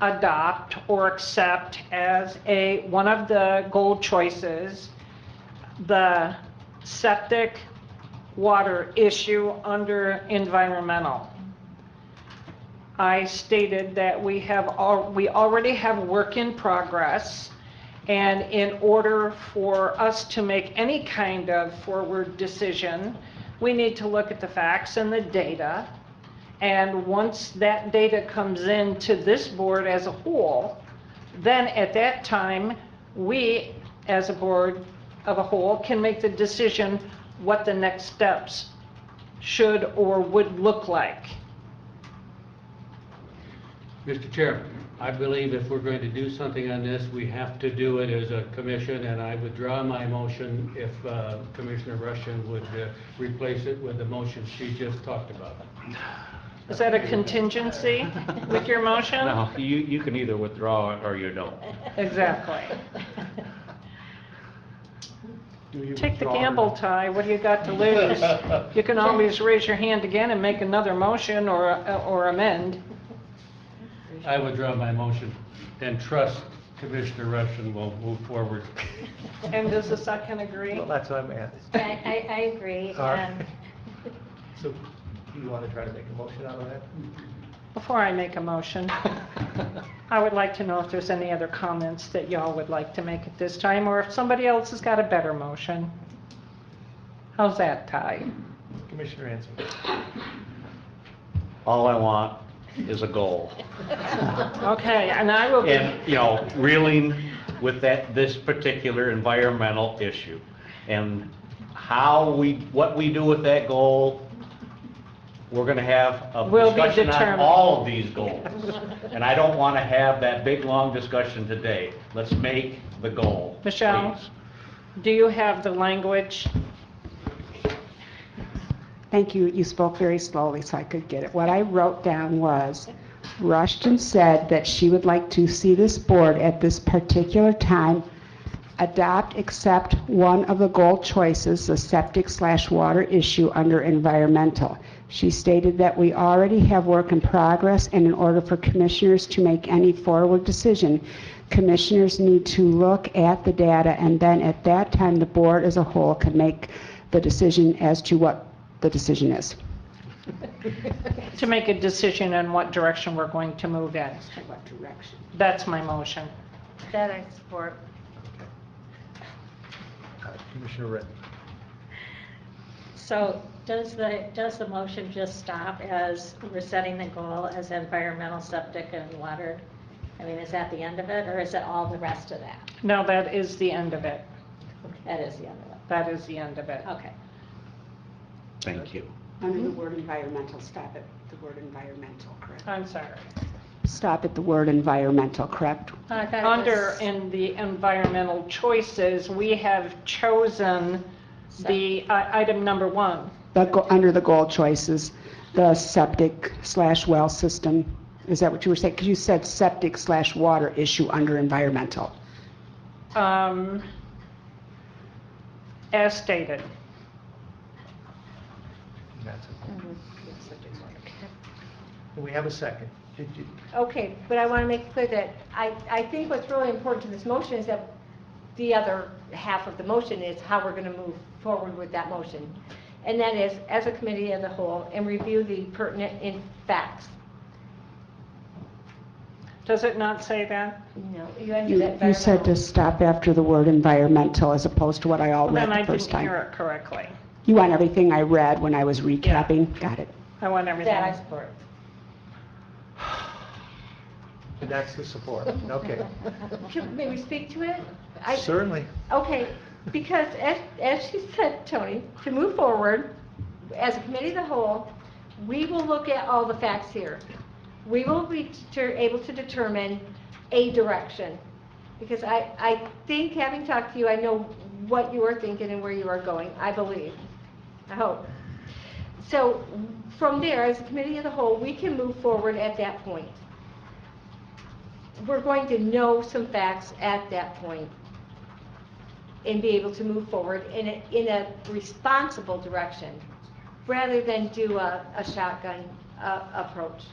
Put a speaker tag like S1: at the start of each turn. S1: adopt or accept as a, one of the goal choices, the septic water issue under environmental. I stated that we have, al- we already have work in progress, and in order for us to make any kind of forward decision, we need to look at the facts and the data. And once that data comes in to this board as a whole, then at that time, we, as a board of a whole, can make the decision what the next steps should or would look like.
S2: Mr. Chair, I believe if we're going to do something on this, we have to do it as a commission, and I withdraw my motion if uh, Commissioner Rushing would uh, replace it with the motion she just talked about.
S1: Is that a contingency with your motion?
S3: No, you, you can either withdraw it or you don't.
S1: Exactly.
S4: Do you
S1: Take the
S4: withdraw or
S1: gamble,
S4: not?
S1: Ty, what do you got to lose? You can always raise your hand again and make another motion or, or amend.
S2: I withdraw my motion and trust Commissioner Rushing will move forward.
S1: And does the second agree?
S4: Well, that's what I'm asking.
S5: I, I, I agree.
S4: All right.
S5: um,
S4: So do you want to try to make a motion out of that?
S1: Before I make a motion, I would like to know if there's any other comments that y'all would like to make at this time, or if somebody else has got a better motion. How's that, Ty?
S4: Commissioner Ansel.
S3: All I want is a goal.
S1: Okay, and I will, be-
S3: And, you know, reeling with that, this particular environmental issue. And how we, what we do with that goal, we're gonna have a
S1: Will be
S3: discussion on
S1: determined.
S3: all of these goals. And I don't wanna have that big, long discussion today. Let's make the goal.
S1: Michelle?
S3: please.
S1: do you have the language?
S6: Thank you. You spoke very slowly, so I could get it. What I wrote down was, Rushton said that she would like to see this board at this particular time adopt, accept one of the goal choices, the septic slash water issue under environmental. She stated that we already have work in progress, and in order for commissioners to make any forward decision, commissioners need to look at the data, and then at that time, the board as a whole can make the decision as to what the decision is.
S1: To make a decision on what direction we're going to move in.
S6: What direction?
S1: That's my motion.
S5: That I support.
S4: Uh, Commissioner Rea.
S5: So does the, does the motion just stop as we're setting the goal as environmental, septic, and water? I mean, is that the end of it, or is it all the rest of that?
S1: No, that is the end of it.
S5: That is the end of it.
S1: That is the end of
S7: Oh.
S1: it.
S5: Okay.
S3: Thank you.
S6: Under the word environmental, stop at the word environmental, correct?
S1: I'm sorry.
S6: Stop at the word environmental, correct?
S5: I thought it
S1: Under
S5: Uh, was-
S1: in the environmental choices, we have chosen the uh, item number one.
S6: The, go- under the goal choices, the septic slash well system, is that what you were saying? Because you said septic slash water issue under environmental.
S1: um, As stated.
S4: That's it. We have a second. Did you-
S7: Okay, but I want to make clear that I, I think what's really important to this motion is that the other half of the motion is how we're going to move forward with that motion. And that is, as a committee as a whole, and review the pertinent in facts.
S1: Does it not say that?
S7: No, you under
S6: You
S7: that.
S6: you said to
S7: environmental-
S6: stop after the word environmental as opposed to what I all read
S1: Then I
S6: the first
S1: didn't hear
S6: time.
S1: it correctly.
S6: You want everything I read when I was recapping? Got it.
S1: I want everything.
S7: That I support.
S4: That's the support. Okay.
S7: Can- May we speak to it? I-
S4: Certainly.
S7: Okay, because as, as she said, Tony, to move forward, as a committee of the whole, we will look at all the facts here. We will be deter- able to determine a direction. Because I, I think, having talked to you, I know what you are thinking and where you are going, I believe, I hope. So from there, as a committee of the whole, we can move forward at that point. We're going to know some facts at that point and be able to move forward in a, in a responsible direction, rather than do a, a shotgun, uh, approach.